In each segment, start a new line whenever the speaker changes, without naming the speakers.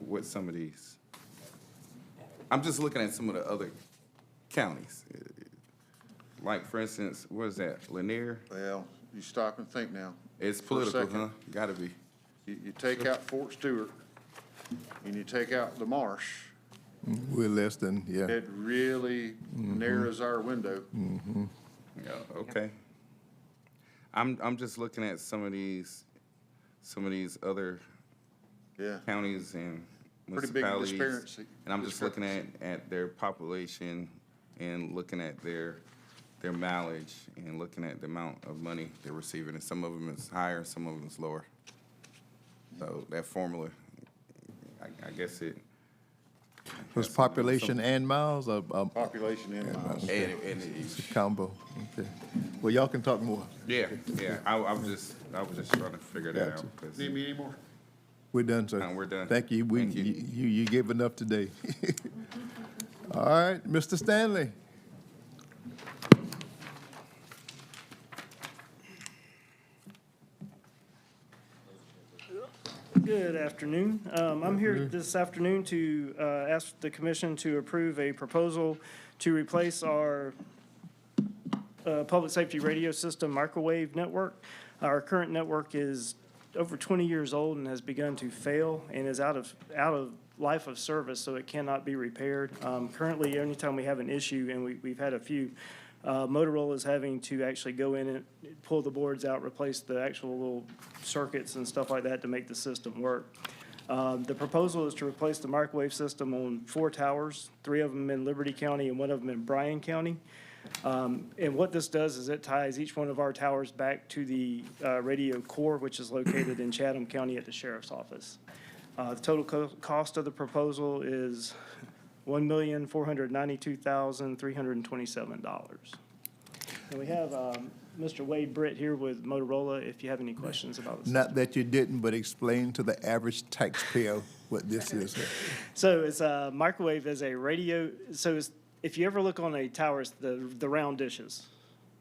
with some of these. I'm just looking at some of the other counties. Like, for instance, what is that, Lanier?
Well, you stop and think now.
It's
For a
political,
second.
huh? Gotta be.
You, you take out Fort Stewart and you take out the marsh,
We're less than, yeah.
it really narrows our window.
Yeah, okay. I'm, I'm just looking at some of these, some of these other
Yeah,
counties and
Pretty big
municipalities.
disparity-
And I'm just looking at, at their population and looking at their, their mileage and looking at the amount of money they're receiving. And some of them is higher, some of them is lower. So that formula, I, I guess it.
Was population and miles or, um,
Oh.
population in miles.
And, and it-
combo? Okay. Well, y'all can talk more.
yeah, yeah, I, I was just, I was just trying to figure that out.
Gotcha.
'cause-
Need me anymore?
We're done, sir.
No, we're done.
Thank you. We,
Thank you.
you, you you gave enough today. All right, Mr. Stanley.
Good afternoon. Um, I'm here this afternoon to uh, ask the commission to approve a proposal to replace our uh, public safety radio system microwave network. Our current network is over 20 years old and has begun to fail and is out of, out of life of service, so it cannot be repaired. Um, Currently, anytime we have an issue, and we, we've had a few, uh, Motorola is having to actually go in and pull the boards out, replace the actual little circuits and stuff like that to make the system work. Um, The proposal is to replace the microwave system on four towers, three of them in Liberty County and one of them in Bryan County. Um, And what this does is it ties each one of our towers back to the uh, radio core, which is located in Chatham County at the sheriff's office. Uh, The total co- cost of the proposal is $1,492,327. And we have um, Mr. Wade Britt here with Motorola, if you have any questions about this.
Not that you didn't, but explain to the average taxpayer what this is.
So it's a microwave as a radio, so it's, if you ever look on a tower, it's the, the round dishes.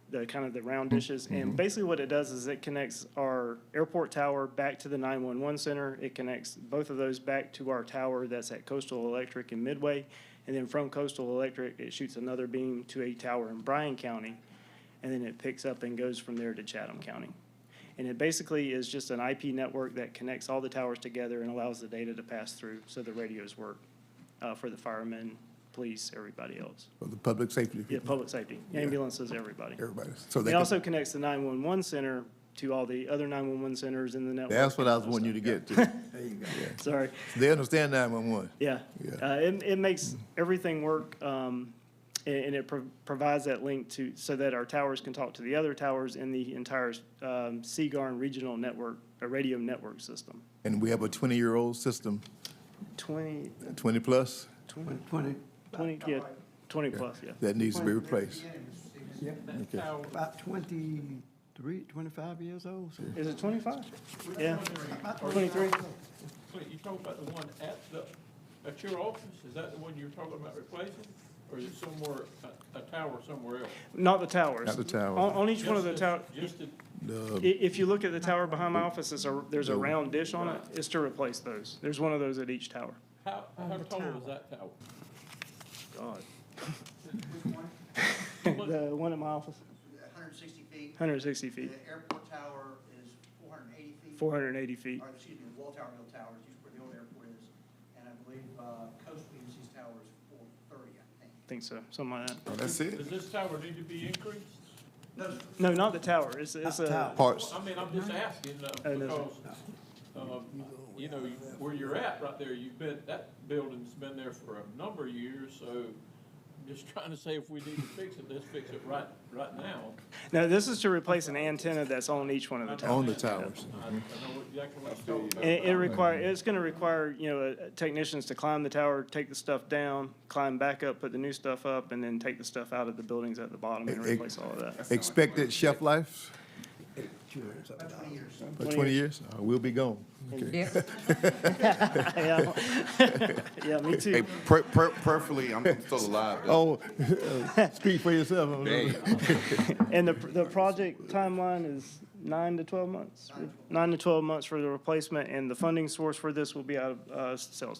The kind of the round dishes, and basically what it does is it connects our airport tower back to the nine-one-one center. It connects both of those back to our tower that's at Coastal Electric in Midway. And then from Coastal Electric, it shoots another beam to a tower in Bryan County. And then it picks up and goes from there to Chatham County. And it basically is just an IP network that connects all the towers together and allows the data to pass through so the radios work uh, for the firemen, police, everybody else.
For the public safety,
Yeah, public safety, ambulances, everybody.
everybody. So they
It
can-
also connects the 911 center to all the other 911 centers in the network.
that's what I was
and
wanting you to get to.
stuff. Sorry.
They understand nine-one-one.
Yeah.
Yeah.
Uh, it, it makes everything work, um, and, and it pro- provides that link to, so that our towers can talk to the other towers in the entire, um, Seagarn regional network, a radio network system.
And we have a twenty-year-old system,
Twenty,
twenty-plus,
Twenty.
twenty, yeah, twenty plus, yeah.
that needs to be replaced.
About twenty-three, twenty-five years old, so.
Is it twenty-five? Yeah, twenty-three.
Wait, you talking about the one at the, at your office? Is that the one you're talking about replacing? Or is it somewhere, a, a tower somewhere else?
Not the towers.
Not the towers.
On, on each one of the
Just
tower,
the- Just the,
i- if you look at the tower behind my office, it's a, there's a round dish on it. It's to replace those. There's one of those at each tower.
how, how tall is that tower?
God. The one at my office,
160 feet.
hundred and sixty
The
feet.
airport tower is 480 feet.
480 feet.
Or, excuse me, the wall tower, hill tower is used where the old airport is. And I believe uh, coastal UC's tower is 430, I think.
I think so, something like that.
That's it?
Does this tower need to be increased?
No, sir.
No, not the tower. It's, it's a,
tower.
Parts,
I mean, I'm just asking, uh,
Oh, no,
because, um, you know, you- where you're at right there, you've been, that building's been there for a number of years, so I'm just trying to say if we need to fix it, let's fix it right, right now.
no, this is to replace an antenna that's on each one of the towers.
on the towers.
I, I know exactly what you're talking about.
And it it require, it's gonna require, you know, uh, technicians to climb the tower, take the stuff down, climb back up, put the new stuff up, and then take the stuff out of the buildings at the bottom and
It- it-
replace all of that.
Expected shelf life for twenty years, Uh, we'll be gone.
Yeah, Yeah, me
Hey,
too.
per, per, perfectly, I'm still alive. though.
Oh, speak for yourself. I don't know.
Dang.
And the, the project timeline is nine to twelve months? Nine to twelve months for the replacement, and the funding source for this will be out of, uh, sales tax.